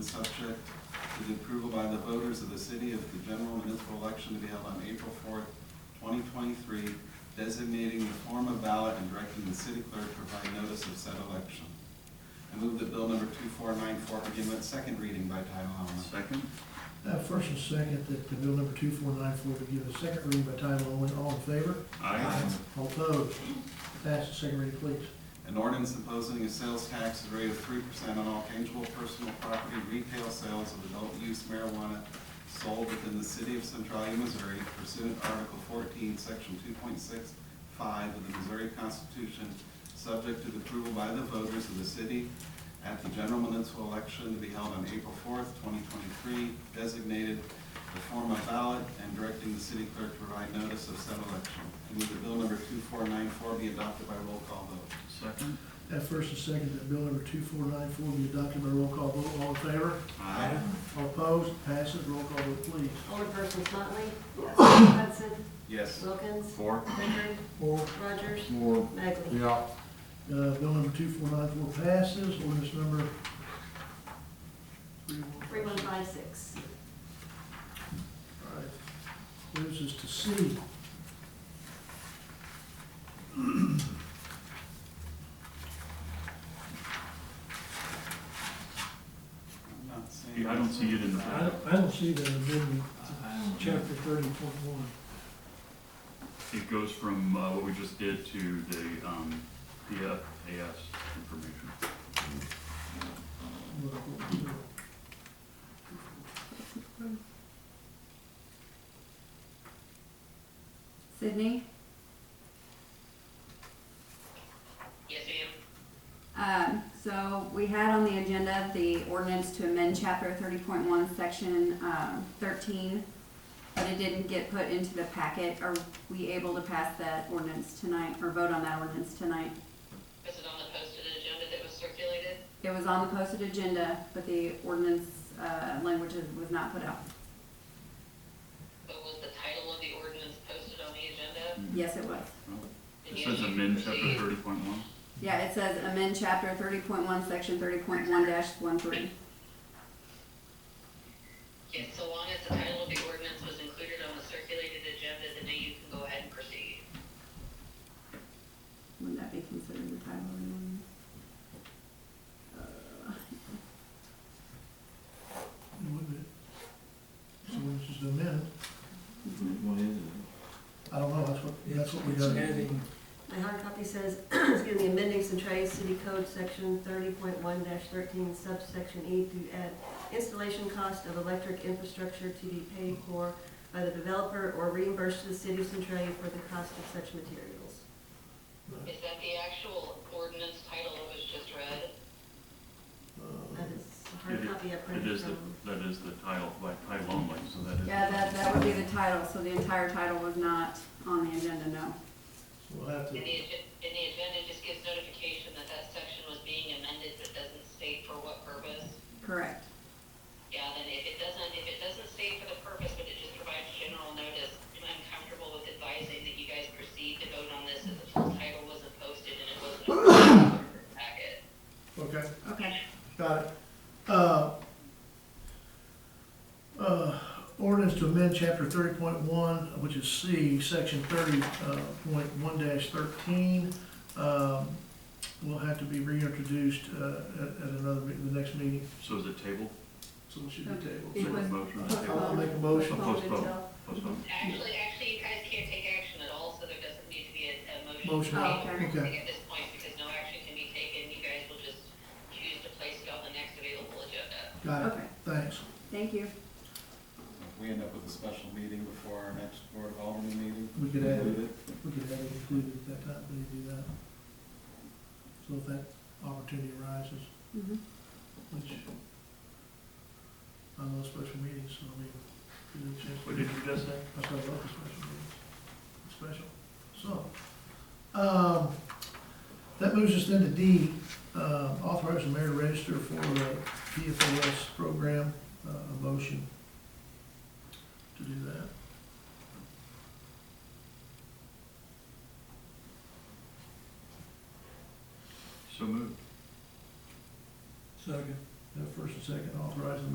for the approval by the voters of the city of the general municipal election to be held on April fourth, twenty twenty-three, designating the form of ballot and directing the city clerk to provide notice of said election. I move that bill number two four nine four begin its second reading by title only. Second? Now, first and second, that the bill number two four nine four be given a second reading by title only. All in favor? Aye. All opposed? Pass the second reading, please. An ordinance imposing a sales tax rate of three percent on all tangible personal property retail sales of adult-use marijuana sold within the city of Centralia, Missouri pursuant to Article fourteen, Section two point six five of the Missouri Constitution, subject to the approval by the voters of the city at the general municipal election to be held on April fourth, twenty twenty-three, designated the form of ballot and directing the city clerk to provide notice of said election. I move that bill number two four nine four be adopted by roll call vote. Second? Now, first and second, that bill number two four nine four be adopted by roll call vote. All in favor? Aye. All opposed? Passes. Roll call vote, please. Alderpersons Motley. Hudson. Yes. Wilkins. Four? Bickford. Four. Rogers. Four. Magley. Yeah. Uh, bill number two four nine four passes. Ordinance number three one- Three one five six. All right. Moves us to C. I'm not seeing. I don't see it in the I back. don't, I don't see that amendment, chapter thirty point one. It goes from uh, what we just did to the um, PFAS information. Sydney? Yes, ma'am. Um, so we had on the agenda the ordinance to amend chapter thirty point one, section, um, thirteen, but it didn't get put into the packet. Are we able to pass that ordinance tonight, or vote on that ordinance tonight? Was it on the posted agenda that was circulated? It was on the posted agenda, but the ordinance, uh, language was not put out. What was the title of the ordinance posted on the agenda? Yes, it was. And It yes, says you amend can chapter proceed. thirty point one. Yeah, it says amend chapter thirty point one, section thirty point one dash one three. Yes, so long as the title of the ordinance was included on the circulated agenda, then you can go ahead and proceed. Would that be considered the title of the ordinance? Uh, So this is amendment. mhm. I don't know, that's what, that's what we got. My hard copy says, excuse me, amending Centralia City Code Section thirty point one thirteen subsection E to add installation cost of electric infrastructure to be paid for by the developer or reimbursed to the city of Centralia for the cost of such materials. Is that the actual ordinance title that was just read? Uh, That is a hard It- copy I It printed is the, from. that is the title, by title only, so that is. Yeah, that, that would be the title, so the entire title was not on the agenda, no. So we'll have to, And the, agen- and the agenda just gives notification that that section was being amended, but doesn't state for what purpose? Correct. Yeah, then if it doesn't, if it doesn't state for the purpose, but it just provides general notice, I'm comfortable with advising that you guys proceed to vote on this as the full title wasn't posted and it wasn't approved in the board packet. okay, Okay. got it. Uh, uh, ordinance to amend chapter thirty point one, which is C, section thirty, uh, point one dash thirteen, um, will have to be reintroduced, uh, at, at another, me- the next meeting, So is it table? so it should be tabled. Is It there a was motion to I'll- I'll table? postponed. make a motion. Postponed Postpone. until- Postpone. Actually, actually, you guys can't take action at all, so there doesn't need to be a, a motion. Motion. Oh, made okay. Okay. At this point, because no action can be taken, you guys will just choose to place it on the next available agenda. Got it, Okay, thanks. thank you. If we end up with a special meeting before our next Board of Alderman meeting. We could add it. include We could have it included at that time, they do that. So if that opportunity arises, Mhm. which, I love special meetings, so I mean, if there's a chance. What did you just say? I still love the special meetings, It's special. So, um, that moves us then to D, uh, authorize the mayor to register for the PFAS program, uh, a motion to do that. So moved. Second. first and second, authorize the